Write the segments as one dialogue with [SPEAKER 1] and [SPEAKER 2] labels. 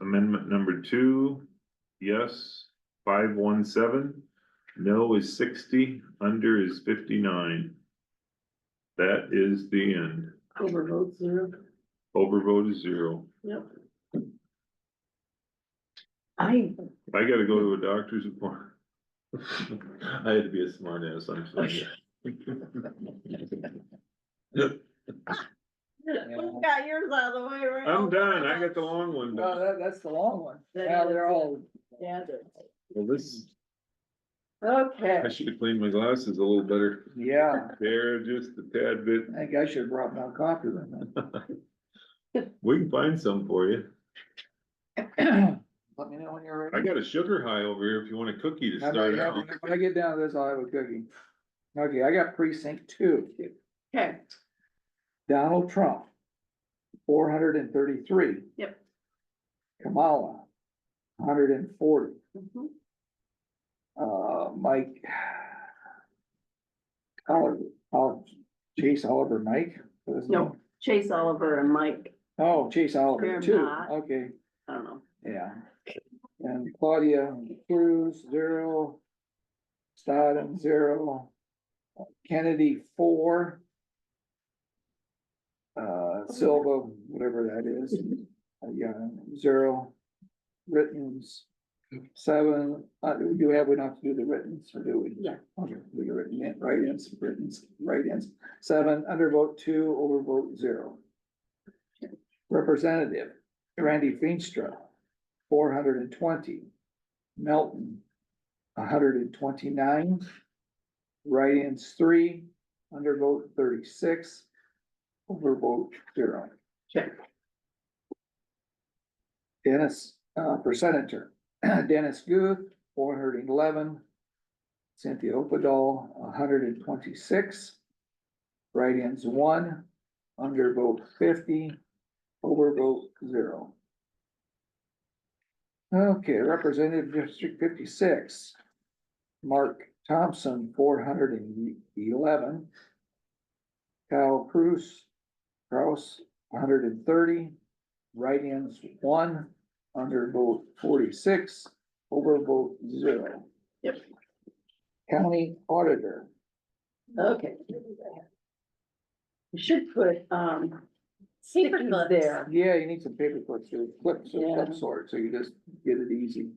[SPEAKER 1] amendment number two, yes, five one seven. No is sixty, under is fifty-nine. That is the end.
[SPEAKER 2] Overvote zero.
[SPEAKER 1] Overvote is zero.
[SPEAKER 2] Yep. I,
[SPEAKER 1] If I gotta go to a doctor's appointment. I had to be a smart ass, I'm sorry.
[SPEAKER 2] we got yours out of the way, right?
[SPEAKER 1] I'm done. I got the long one
[SPEAKER 3] No,
[SPEAKER 1] done.
[SPEAKER 3] that, that's the long one.
[SPEAKER 2] That
[SPEAKER 3] Now
[SPEAKER 2] is
[SPEAKER 3] they're
[SPEAKER 2] it.
[SPEAKER 3] all,
[SPEAKER 2] Yeah, there.
[SPEAKER 1] Well, this,
[SPEAKER 2] Okay,
[SPEAKER 1] I should have cleaned my glasses a little better.
[SPEAKER 3] yeah,
[SPEAKER 1] They're just a tad bit.
[SPEAKER 3] I think I should have brought my coffee with
[SPEAKER 1] We can find some for you.
[SPEAKER 3] me. Let me know when you're
[SPEAKER 1] I
[SPEAKER 3] ready.
[SPEAKER 1] got a sugar high over here if you want a cookie to
[SPEAKER 3] I might
[SPEAKER 1] start
[SPEAKER 3] have-
[SPEAKER 1] out.
[SPEAKER 3] When I get down to this, I'll have a cookie. Okay, I got precinct two,
[SPEAKER 2] okay,
[SPEAKER 3] Donald Trump, four hundred and thirty-three.
[SPEAKER 2] Yep.
[SPEAKER 3] Kamala, hundred and forty,
[SPEAKER 2] mhm,
[SPEAKER 3] uh, Mike. Oliver, Oliver, Chase Oliver, Mike? What is his
[SPEAKER 2] No.
[SPEAKER 3] name?
[SPEAKER 2] Chase Oliver and Mike,
[SPEAKER 3] Oh, Chase Oliver,
[SPEAKER 2] They're
[SPEAKER 3] two,
[SPEAKER 2] not.
[SPEAKER 3] okay.
[SPEAKER 2] I don't know,
[SPEAKER 3] Yeah. And Claudia Cruz, zero. Stodden, zero. Kennedy, four. Uh, Silva, whatever that is, uh, yeah, zero. Written's, seven, uh, do we have, we don't have to do the written's, or do we?
[SPEAKER 2] Yeah.
[SPEAKER 3] Okay, we got written in, write-ins, written-ins, write-ins, seven, undervote two, overvote zero. Representative Randy Feenstra, four hundred and twenty. Melton, hundred and twenty-nine. Write-ins three, undervote thirty-six, overvote zero.
[SPEAKER 2] Okay.
[SPEAKER 3] Dennis, uh, for senator, Dennis Guth, four hundred and eleven. Cynthia Opadoll, hundred and twenty-six. Write-ins one, undervote fifty, overvote zero. Okay, Representative District fifty-six. Mark Thompson, four hundred and eleven. Kyle Cruz, Kraus, hundred and thirty. Write-ins one, undervote forty-six, overvote zero.
[SPEAKER 2] Yep.
[SPEAKER 3] County Auditor,
[SPEAKER 2] okay. You should put, um, stickies
[SPEAKER 4] clips.
[SPEAKER 2] there,
[SPEAKER 3] yeah, you need some paper clips, or clips of
[SPEAKER 2] Yeah.
[SPEAKER 3] some sort, so you just get it easy.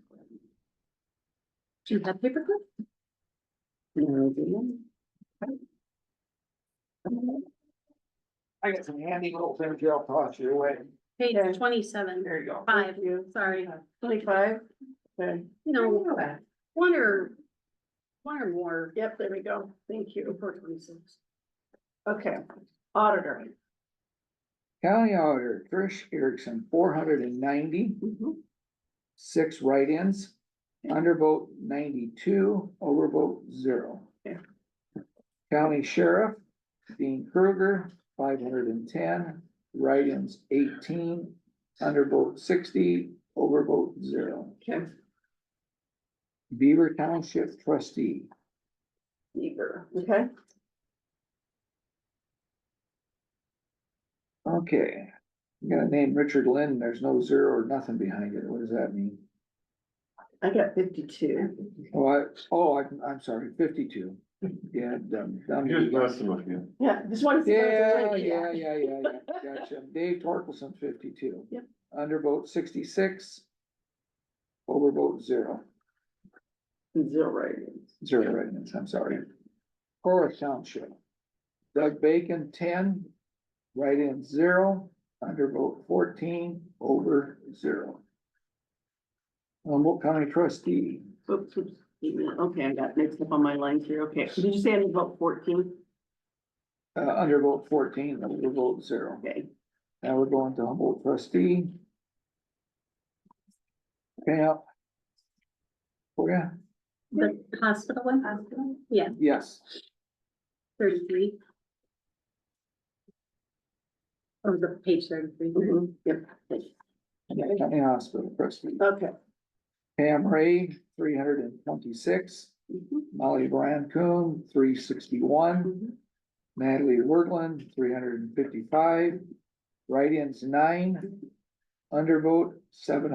[SPEAKER 4] Do you have paperclip?
[SPEAKER 3] I got some handy little things here, I'll toss you away.
[SPEAKER 4] Page
[SPEAKER 2] Yeah.
[SPEAKER 4] twenty-seven,
[SPEAKER 3] There you go.
[SPEAKER 4] five,
[SPEAKER 2] you.
[SPEAKER 4] sorry,
[SPEAKER 2] twenty-five, okay.
[SPEAKER 4] you know, one or, one or more.
[SPEAKER 2] Yep, there we go, thank you, four twenty-six. Okay, auditor.
[SPEAKER 3] County Auditor Trish Erickson, four hundred and ninety,
[SPEAKER 2] Mhm.
[SPEAKER 3] six write-ins, undervote ninety-two, overvote zero.
[SPEAKER 2] Yeah.
[SPEAKER 3] County Sheriff Dean Kruger, five hundred and ten, write-ins eighteen, undervote sixty, overvote zero.
[SPEAKER 2] Okay,
[SPEAKER 3] Beaver Township Trustee
[SPEAKER 2] eager, okay,
[SPEAKER 3] Okay, I'm gonna name Richard Lynn, there's no zero or nothing behind it, what does that mean?
[SPEAKER 2] I got fifty-two.
[SPEAKER 3] Oh, I, oh, I'm, I'm sorry, fifty-two, yeah, dumb, dumb.
[SPEAKER 1] some of you.
[SPEAKER 2] Yeah, this one's.
[SPEAKER 3] Yeah, yeah, yeah, yeah, yeah, gotcha, Dave Torkelson, fifty-two.
[SPEAKER 2] Yep.
[SPEAKER 3] Undervote sixty-six. Overvote zero.
[SPEAKER 2] Zero ratings.
[SPEAKER 3] Zero write-ins, I'm sorry. Horace Township. Doug Bacon, ten, write-in zero, undervote fourteen, over zero. Humboldt County trustee,
[SPEAKER 2] Oops, oops, wait a minute. okay, I got mixed up on my lines here, okay, did you say I'm about fourteen?
[SPEAKER 3] uh, undervote fourteen, overvote zero.
[SPEAKER 2] Okay,
[SPEAKER 3] Now we're going to Humboldt trustee. Pam. Oh, yeah,
[SPEAKER 4] The hospital one? Yeah,
[SPEAKER 3] yes,
[SPEAKER 4] thirty-three. Oh, the page thirty-three.
[SPEAKER 2] mhm, yep,
[SPEAKER 3] county hospital trustee.
[SPEAKER 2] okay.
[SPEAKER 3] Pam Ray, three hundred and twenty-six.
[SPEAKER 2] mhm,
[SPEAKER 3] Molly Brancombe, three sixty-one.
[SPEAKER 2] mhm,
[SPEAKER 3] Natalie Wordland, three hundred and fifty-five. Write-ins, nine. Undervote, seven